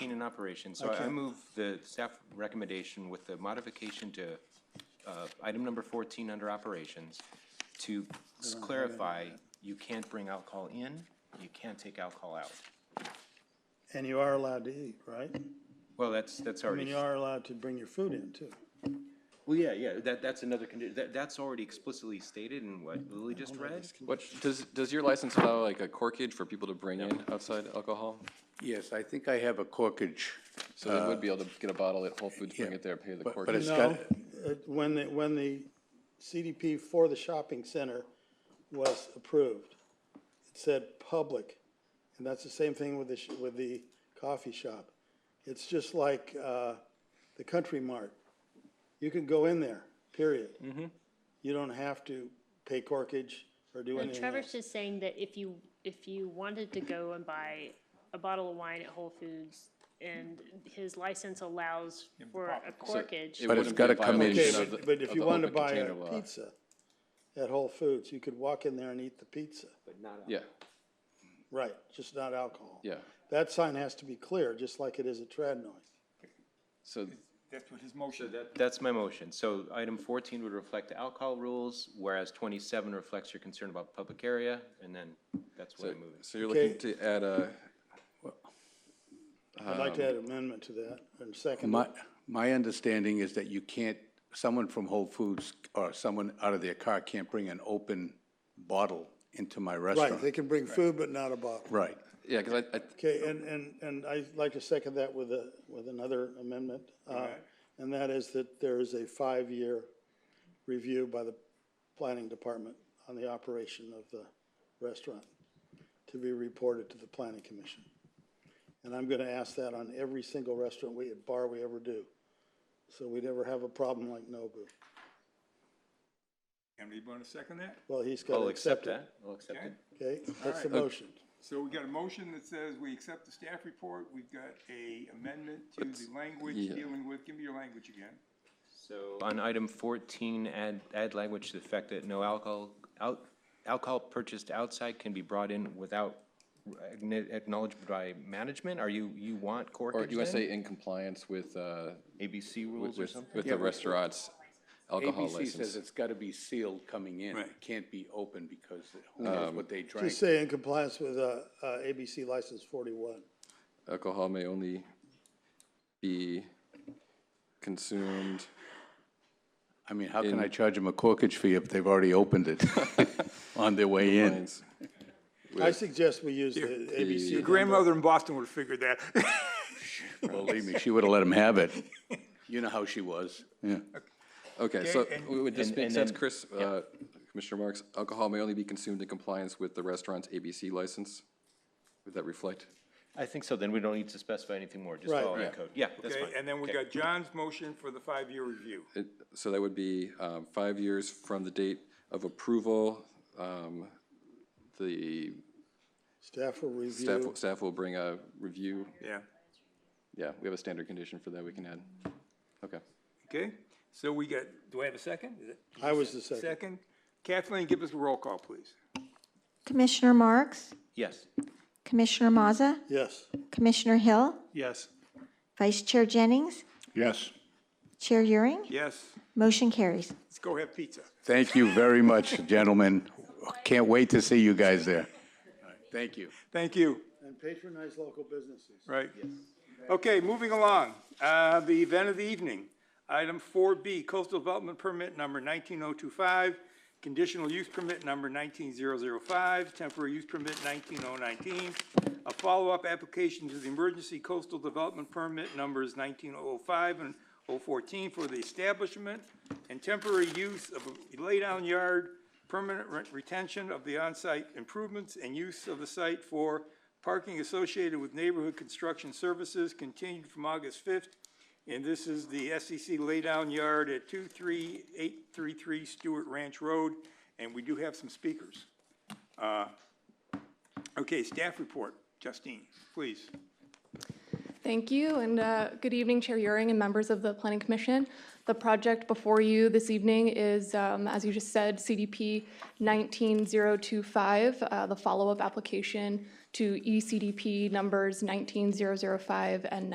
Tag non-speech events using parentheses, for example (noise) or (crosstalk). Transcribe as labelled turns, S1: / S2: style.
S1: and operations. So
S2: I
S1: I
S2: can't-
S1: move the staff recommendation with the modification to uh, item number 14 under operations to s- clarify, you can't bring alcohol in, you can't take alcohol out.
S2: And you are allowed to eat, right?
S1: Well, that's, that's
S2: I mean,
S1: already,
S2: you are allowed to bring your food in too.
S1: well, yeah, yeah, that, that's another, condi- that, that's already explicitly stated in what
S2: Mm-hmm.
S1: Lily just read.
S3: What, does, does your license allow like a corkage for people to bring in outside alcohol?
S4: Yes, I think I have a corkage.
S3: So they would be able to get a bottle at Whole Foods, bring it there, pay the
S4: Uh, but-
S3: corkage.
S4: but it's
S2: No,
S4: got-
S2: it- when the, when the CDP for the shopping center was approved, it said public, and that's the same thing with the, sh- with the coffee shop. It's just like, uh, the Country Mart. You can go in there, period.
S4: Mm-hmm.
S2: You don't have to pay corkage or do
S5: Well,
S2: anything else.
S5: Trevor's just saying that if you, if you wanted to go and buy a bottle of wine at Whole Foods and his license allows for a corkage,
S3: It
S4: But
S3: wouldn't
S4: it's
S3: be a
S4: gotta come in.
S3: violation
S2: Okay,
S4: know,
S3: of
S2: but,
S3: the-
S2: but
S3: of
S2: if you
S3: the open
S2: wanted to buy a
S3: container law.
S2: pizza at Whole Foods, you could walk in there and eat the pizza.
S3: Yeah,
S2: Right, just not alcohol.
S3: yeah.
S2: That sign has to be clear, just like it is at Tradnoy.
S3: So
S6: That's what his motion.
S1: That's my motion. So item 14 would reflect the alcohol rules, whereas 27 reflects your concern about public area, and then that's what I'm moving.
S3: So you're looking
S2: Okay.
S3: to add a,
S2: I'd like to add
S3: Um,
S2: an amendment to that, and second,
S4: My, my understanding is that you can't, someone from Whole Foods or someone out of their car can't bring an open bottle into my
S2: right,
S4: restaurant.
S2: they can bring food, but not a bottle.
S4: Right.
S3: yeah, because I, I,
S2: Okay, and, and, and I'd like to second that with a, with another amendment. uh, And that is that there is a five-year review by the planning department on the operation of the restaurant to be reported to the planning commission. And I'm gonna ask that on every single restaurant we, bar we ever do. So we never have a problem like Nobu.
S6: Anybody want to second that?
S2: Well, he's
S1: I'll
S2: gotta
S1: accept
S2: accept it.
S1: that. I'll accept
S6: Okay.
S1: it.
S2: Okay, that's the
S6: Alright.
S2: motion.
S6: So we got a motion that says we accept the staff report. We've got a amendment to the language
S3: yeah.
S6: dealing with, give me your language again.
S1: So on item 14, add, add language to the fact that no alcohol, out- alcohol purchased outside can be brought in without acknow- acknowledgement by management? Are you, you want
S3: or
S1: corkage
S3: you want to
S1: then?
S3: say in compliance with, uh,
S1: ABC rules
S3: with,
S1: or
S3: with
S1: something?
S3: with the restaurant's alcohol
S4: ABC says
S3: license?
S4: it's got to be sealed coming in. It
S6: Right.
S4: can't be open because who knows what they drank.
S2: Just say in compliance with, uh, uh, ABC license forty-one.
S3: Alcohol may only be consumed.
S4: I mean, how can I charge them a corkage fee if they've already opened it on their way in?
S2: I suggest we use the ABC.
S3: Your
S2: number.
S6: in Boston would have figured that. (laughs)
S4: Believe me, she would have let them have it. You know how she was, yeah.
S3: Okay, so
S6: and-
S3: w- would this
S1: And-
S3: make
S1: and
S3: sense,
S1: then-
S3: Chris? Uh, Commissioner Marks, alcohol may only be consumed in compliance with the restaurant's ABC license? Would that reflect?
S1: I think so, then we don't need to specify anything more, just
S2: Right.
S1: follow the
S2: Yeah.
S1: code. Yeah, that's
S6: Okay,
S1: fine.
S6: and then we got John's motion for the five-year review.
S3: It- So that would be um, five years from the date of approval. Um, The
S2: Staff will
S3: staff,
S2: review.
S3: staff will bring a review.
S6: Yeah.
S3: Yeah, we have a standard condition for that we can add. Okay.
S6: Okay, so we got, do I have a second? Is it-
S2: I was the second.
S6: Second? Kathleen, give us a roll call, please.
S7: Commissioner Marks?
S1: Yes.
S7: Commissioner Mazza?
S2: Yes.
S7: Commissioner Hill?
S2: Yes.
S7: Vice Chair Jennings?
S4: Yes.
S7: Chair Euring?
S6: Yes,
S7: Motion carries.
S6: let's go have pizza.
S4: Thank you very much, gentlemen. Can't wait to see you guys there. Thank you.
S6: Thank you.
S2: And patronize local businesses.
S6: Right. Okay, moving along, uh, the event of the evening. Item four B, coastal development permit number nineteen oh two five, conditional use permit number nineteen zero zero five, temporary use permit nineteen oh nineteen, a follow-up application to the emergency coastal development permit numbers nineteen oh five and 014 for the establishment and temporary use of a laydown yard, permanent re- retention of the on-site improvements and use of the site for parking associated with neighborhood construction services continued from August fifth. And this is the SEC laydown yard at two three eight three three Stewart Ranch Road, and we do have some speakers. Uh, Okay, staff report, Justine, please.
S8: Thank you, and uh, good evening, Chair Euring and members of the Planning Commission. The project before you this evening is, um, as you just said, CDP 19025, uh, E the follow-up application to ECDP numbers 19005 and